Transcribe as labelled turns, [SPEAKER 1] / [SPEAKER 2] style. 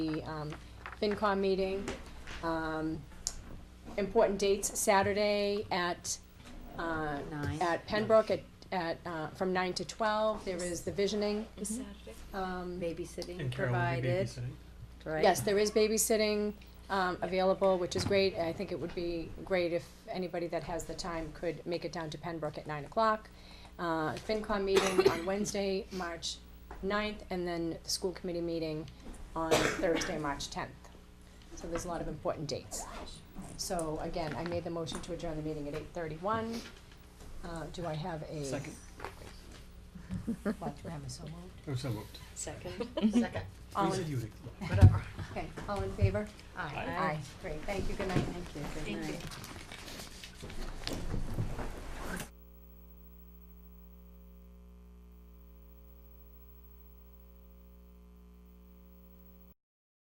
[SPEAKER 1] the um, FinCom meeting. Um, Important dates, Saturday at, uh,
[SPEAKER 2] Nine.
[SPEAKER 1] at Pembroke at, at, uh, from nine to twelve, there is the visioning. Um,
[SPEAKER 2] babysitting
[SPEAKER 3] And Carol will be
[SPEAKER 2] provided,
[SPEAKER 3] babysitting.
[SPEAKER 2] right?
[SPEAKER 1] Yes, there is babysitting um, available, which is great. I think it would be great if anybody that has the time could make it down to Pembroke at nine o'clock. Uh, FinCom meeting on Wednesday, March 9th, and then the school committee meeting on Thursday, March tenth. So there's a lot of important dates. So again, I made the motion to adjourn the meeting at eight thirty-one. Uh, do I have a?
[SPEAKER 3] Second.
[SPEAKER 1] What, do I have a so moved?
[SPEAKER 3] Oh, so moved.
[SPEAKER 4] Second,
[SPEAKER 1] All
[SPEAKER 3] We said
[SPEAKER 1] in,
[SPEAKER 3] you would-
[SPEAKER 4] whatever.
[SPEAKER 1] okay, all in favor?
[SPEAKER 4] Aye.
[SPEAKER 2] Aye.
[SPEAKER 1] Great, thank you, good night.
[SPEAKER 2] Thank you, good night.